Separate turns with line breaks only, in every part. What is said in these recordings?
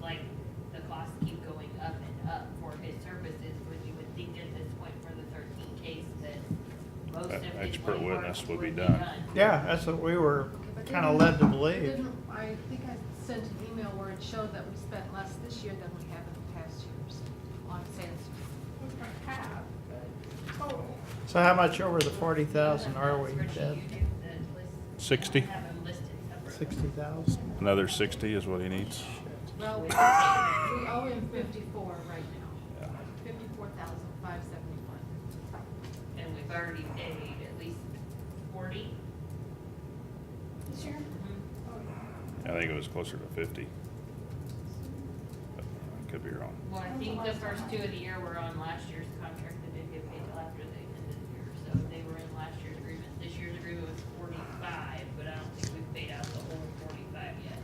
like the costs keep going up and up for his services, when you would think at this point for the thirteen case that most of
An
his.
expert
white
witness
work
would be done.
Yeah, that's what we were
But
kind of
didn't-
led to believe.
didn't- I think I sent an email where it showed that we spent less this year than we have in the past years on sales.
half, but total.
So how much over the forty thousand are we,
Spreadsheet
Deb?
you do, the list-
60.
Have them listed separately.
Sixty thousand?
Another sixty is what he needs?
Well, we we owe him fifty-four right now,
Yeah.
fifty-four thousand five seventy-one.
And we've already paid at least forty.
This year?
Mm-hmm.
Oh,
I think it was closer to fifty. But I Could be wrong.
Well, I think the first two of the year were on last year's contract that didn't get paid till after the end of the year. So they were in last year's agreement. This year's agreement was forty-five, but I don't think we've paid out the whole forty-five yet.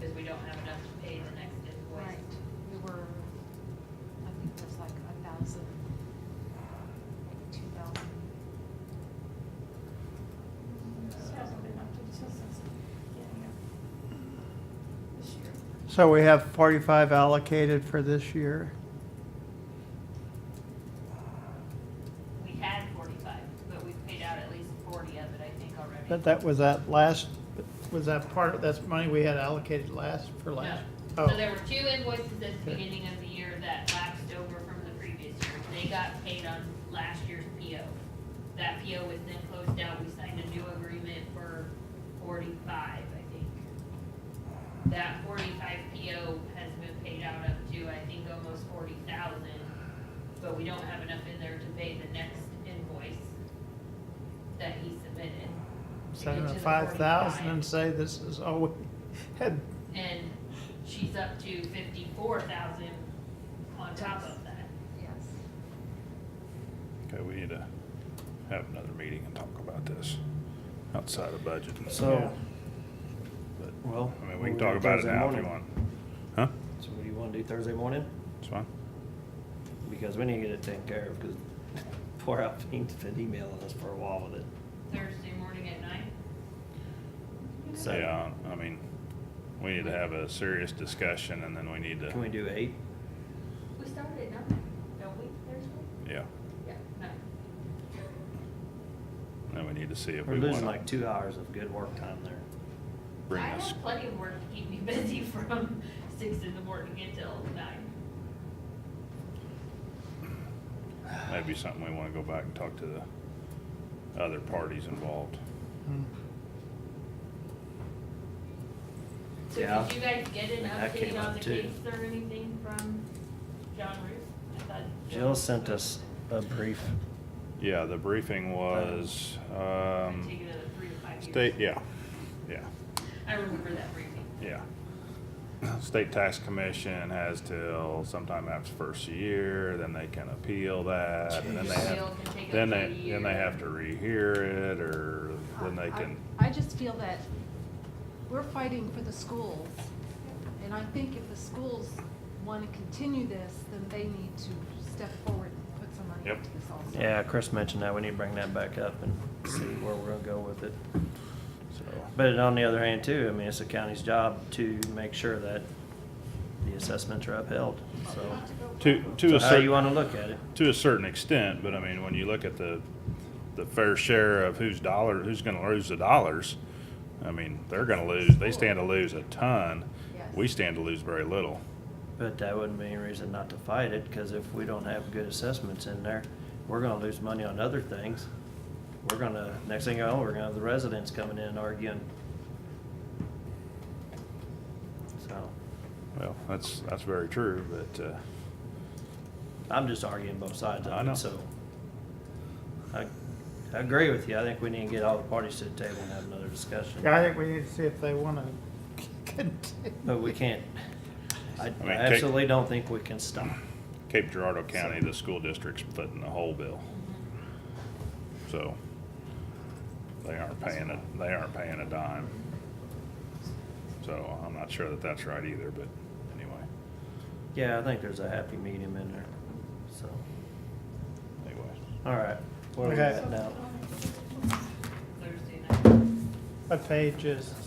Because we don't have enough to pay the next invoice.
We were, I think it was like a thousand, maybe two thousand.
yeah. This hasn't been updated since the beginning of this year.
So we have forty-five allocated for this year.
We had forty-five, but we've paid out at least forty of it, I think, already.
But that was that last, was that part, that's money we had allocated last, for
No.
last?
So
Oh,
there were two invoices at the
Okay.
beginning of the year that lapsed over from the previous year. They got paid on last year's PO. That PO was then closed out. We signed a new agreement for forty-five, I think. That forty-five PO has been paid out up to, I think, almost forty thousand, but we don't have enough in there to pay the next invoice that he submitted. to get
send
to
them
the
five thousand
45.
and say this is all we had.
And she's up to fifty-four thousand on top of that.
Yes.
Okay, we need to have another meeting and talk about this outside of budget.
So,
But,
well.
I mean, we
what
can
do
talk about it
Thursday
now if you
morning?
want. Huh?
So what do you wanna do Thursday morning?
It's fine.
Because we need to get it taken care of, because poor Alpine's been emailing us for a while with it.
Thursday morning at nine?
So,
Yeah, I mean, we need to have a serious discussion and then we need
Can we
to,
do eight?
We started at nine, don't we, Thursday?
yeah.
Yeah. Nine.
Then we need to see if
We're
we
losing
wanna
like two hours of good work time there.
bring
I
this.
have plenty of work to keep me busy from six in the morning until nine.
Maybe something we wanna go back and talk to the other parties involved.
Hmm.
So
Yeah.
did you guys get an
And that came
update on
up
the
too.
case or anything from John Roos? I thought
Jill sent us a brief.
Yeah, the briefing was,
I
um,
take it another three to five years.
state, yeah, yeah.
I remember that briefing.
Yeah. State Tax Commission has till sometime after first year, then they can appeal that, and then they have,
Appeal can take up
then
to a
they, then they
year.
have to rehear it, or then they
I-
can,
I I just feel that we're fighting for the schools, and I think if the schools want to continue this, then they need to step forward and put some money
Yep.
into this also.
Yeah, Chris mentioned that. We need to bring that back up and see where we're gonna go with it.
so,
But on the other hand too, I mean, it's the county's job to make sure that the assessments are upheld, so.
to, to
So
a
how you
certain,
wanna look at it.
to a certain extent, but I mean, when you look at the, the fair share of whose dollar, who's gonna lose the dollars, I mean, they're gonna lose, they stand to lose a ton,
Yes.
we stand to lose very little.
But that wouldn't be any reason not to fight it, because if we don't have good assessments in there, we're gonna lose money on other things. We're gonna, next thing you know, we're gonna have the residents coming in arguing. So,
Well, that's, that's very true, but, uh,
I'm just arguing both sides
I
of
know.
it, so. I, I agree with you, I think we need to get all the parties to the table and have another discussion,
I think we need to see if they wanna continue.
but we can't. I
mean,
I
take-
absolutely don't think we can stop.
Cape Girardeau County, the school district's footing the whole bill. So they aren't paying a, they aren't paying a dime. So I'm not sure that that's right either, but anyway,
Yeah, I think there's a happy medium in there, so,
anyway.
all right. Where are we
Okay.
at now?
Thursday night.
What page is